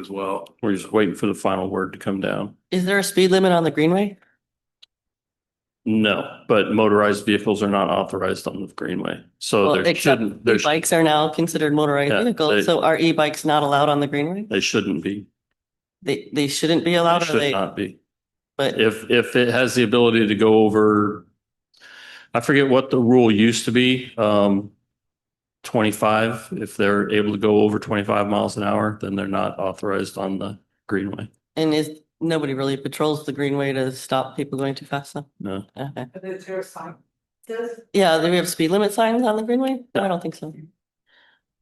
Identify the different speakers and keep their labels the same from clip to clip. Speaker 1: as well.
Speaker 2: We're just waiting for the final word to come down.
Speaker 3: Is there a speed limit on the greenway?
Speaker 2: No, but motorized vehicles are not authorized on the greenway, so
Speaker 3: Well,
Speaker 2: Oh, there
Speaker 3: except
Speaker 2: shouldn't, there, sh-
Speaker 3: Bikes are now considered motorized
Speaker 2: Yeah, they-
Speaker 3: vehicles, so are e-bikes not allowed on the greenway?
Speaker 2: they shouldn't be.
Speaker 3: They, they shouldn't be
Speaker 2: They
Speaker 3: allowed, or
Speaker 2: should
Speaker 3: they,
Speaker 2: not be.
Speaker 3: but
Speaker 2: If, if it has the ability to go over, I forget what the rule used to be, um, twenty-five, if they're able to go over twenty-five miles an hour, then they're not authorized on the greenway.
Speaker 3: and is, nobody really patrols the greenway to stop people going too fast though?
Speaker 2: No,
Speaker 3: Okay.
Speaker 4: Is there a sign? Does,
Speaker 3: Yeah, do we have speed limit signs on the greenway? No, I don't think so.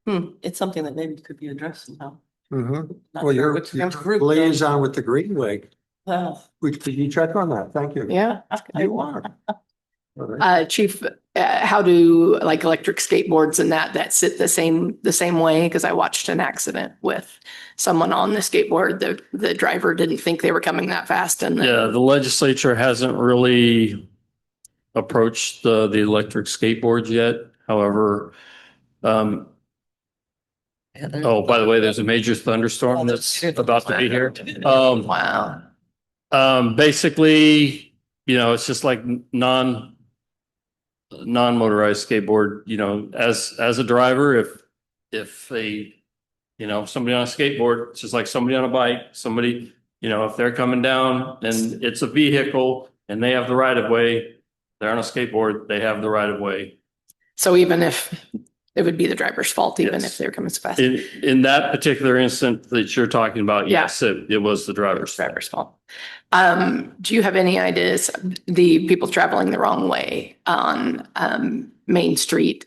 Speaker 3: Hmm, it's something that maybe could be addressed somehow.
Speaker 5: Mm-hmm.
Speaker 3: Not
Speaker 5: Well,
Speaker 3: sure
Speaker 5: you're
Speaker 3: which
Speaker 5: you're
Speaker 3: group though.
Speaker 5: liaison with the Greenway.
Speaker 3: Well,
Speaker 5: Which, could you check on that? Thank you.
Speaker 6: Yeah.
Speaker 5: You are. All right.
Speaker 6: Uh, chief, uh, how do like electric skateboards and that, that sit the same, the same way? Cause I watched an accident with someone on the skateboard. The, the driver didn't think they were coming that fast and. then-
Speaker 2: yeah, the legislature hasn't really approached the, the electric skateboards yet. However, um,
Speaker 3: yeah, there's-
Speaker 2: oh, by the way, there's a major thunderstorm that's about to be here. Um,
Speaker 6: Wow.
Speaker 2: Um, basically, you know, it's just like n- non non-motorized skateboard, you know, as as a driver, if if they, you know, somebody on a skateboard, it's just like somebody on a bike, somebody, you know, if they're coming down and it's a vehicle and they have the right of way, they're on a skateboard, they have the right of way.
Speaker 6: So even if it would be the driver's fault, even
Speaker 2: Yes.
Speaker 6: if they were coming so fast.
Speaker 2: In in that particular instance that you're talking about,
Speaker 6: Yeah.
Speaker 2: yes, it it was the driver's. fault.
Speaker 6: driver's fault. Um, do you have any ideas, the people traveling the wrong way on, um, Main Street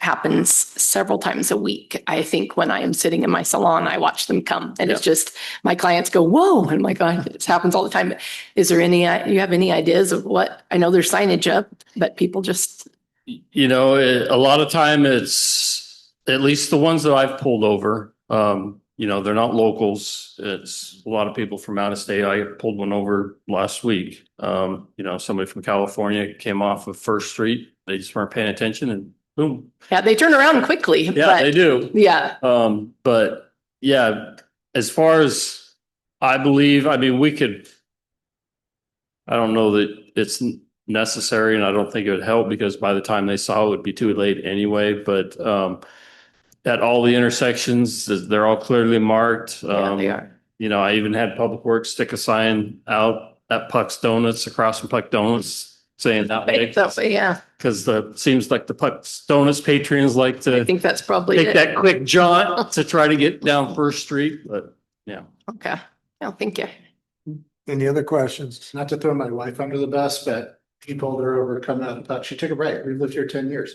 Speaker 6: happens several times a week. I think when I am sitting in my salon, I watch them come and it's just, my clients go, whoa, and my God, it happens all the time. Is there any, uh, you have any ideas of what, I know there's signage up, but people just,
Speaker 2: you know, it, a lot of time it's at least the ones that I've pulled over. Um, you know, they're not locals. It's a lot of people from out of state. I pulled one over last week. Um, you know, somebody from California came off of First Street. They just weren't paying attention and boom.
Speaker 6: yeah, they turn around quickly,
Speaker 2: Yeah, they
Speaker 6: but
Speaker 2: do.
Speaker 6: yeah,
Speaker 2: Um, but yeah, as far as I believe, I mean, we could. I don't know that it's n- necessary and I don't think it would help because by the time they saw it, it would be too late anyway, but um. At all the intersections, they're all clearly marked.
Speaker 6: yeah,
Speaker 2: Um,
Speaker 6: they are.
Speaker 2: you know, I even had Public Works stick a sign out at Puck's Donuts across from Puck Donuts saying that way.
Speaker 6: So, yeah,
Speaker 2: Cause the, seems like the Puck's Donuts patrons like to
Speaker 6: I think that's probably
Speaker 2: take
Speaker 6: it.
Speaker 2: that quick jaunt to try to get down First Street, but
Speaker 6: Okay. No, thank you.
Speaker 5: Any other questions?
Speaker 7: not to throw my wife under the bus, but he pulled her over coming out of the puck. She took a break. We've lived here ten years.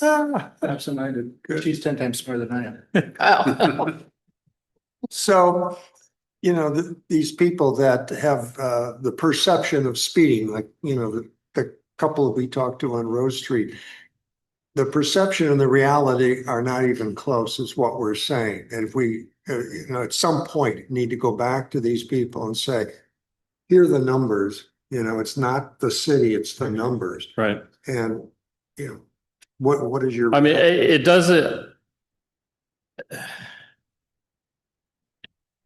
Speaker 5: Ah,
Speaker 7: Absent-minded.
Speaker 5: Good.
Speaker 7: She's ten times smarter than I am.
Speaker 6: Oh.
Speaker 5: So, you know, th- these people that have uh, the perception of speeding, like, you know, the, the couple we talked to on Rose Street, the perception and the reality are not even close is what we're saying. And if we, uh, you know, at some point need to go back to these people and say, here are the numbers, you know, it's not the city, it's the
Speaker 2: Mm-hmm.
Speaker 5: numbers.
Speaker 2: right.
Speaker 5: And, you know, what, what is your?
Speaker 2: I mean, it, it doesn't.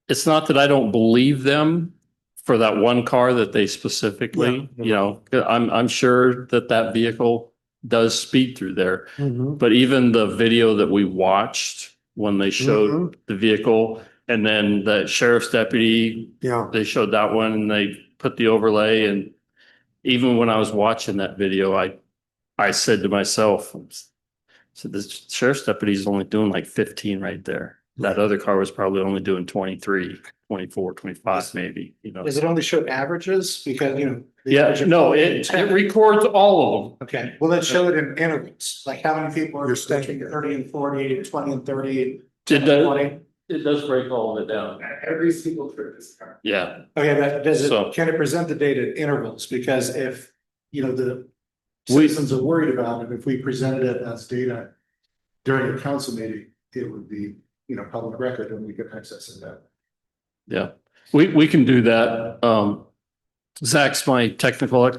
Speaker 2: It's not that I don't believe them for that one car that they specifically,
Speaker 5: Yeah.
Speaker 2: you know, I'm, I'm sure that that vehicle does speed through there.
Speaker 5: Mhm.
Speaker 2: But even the video that we watched when they showed
Speaker 5: Mhm.
Speaker 2: the vehicle and then the sheriff's deputy
Speaker 5: Yeah.
Speaker 2: they showed that one and they put the overlay and even when I was watching that video, I, I said to myself, so the sheriff's deputy is only doing like fifteen right there. That other car was probably only doing 23, 24, 25, maybe, you know?
Speaker 7: Does it only show averages? Because, you know. the
Speaker 2: Yeah,
Speaker 7: average of-
Speaker 2: no, it, it records all of
Speaker 7: Okay, well, it showed in intervals, like how many people are
Speaker 5: You're staying-
Speaker 7: between thirty and forty, twenty and thirty,
Speaker 2: them. It
Speaker 7: 10 and
Speaker 2: does,
Speaker 7: twenty.
Speaker 2: it does break all of it down.
Speaker 7: Every single trip is covered.
Speaker 2: Yeah,
Speaker 7: Okay, but does
Speaker 2: So-
Speaker 7: it, can it present the data at intervals? Because if, you know, the
Speaker 2: We-
Speaker 7: citizens are worried about it, if we presented it as data during a council meeting, it would be, you know, public record and we could access it that.
Speaker 2: yeah. We, we can do that. Um, Zach's my technical, ex-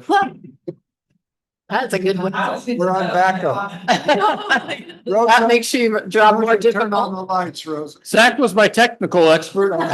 Speaker 6: That's a good one.
Speaker 5: We're on backup.
Speaker 6: That makes your job more
Speaker 5: Rosa, turn on
Speaker 6: difficult.
Speaker 5: the lights, Rosa.
Speaker 2: Zach was my technical expert on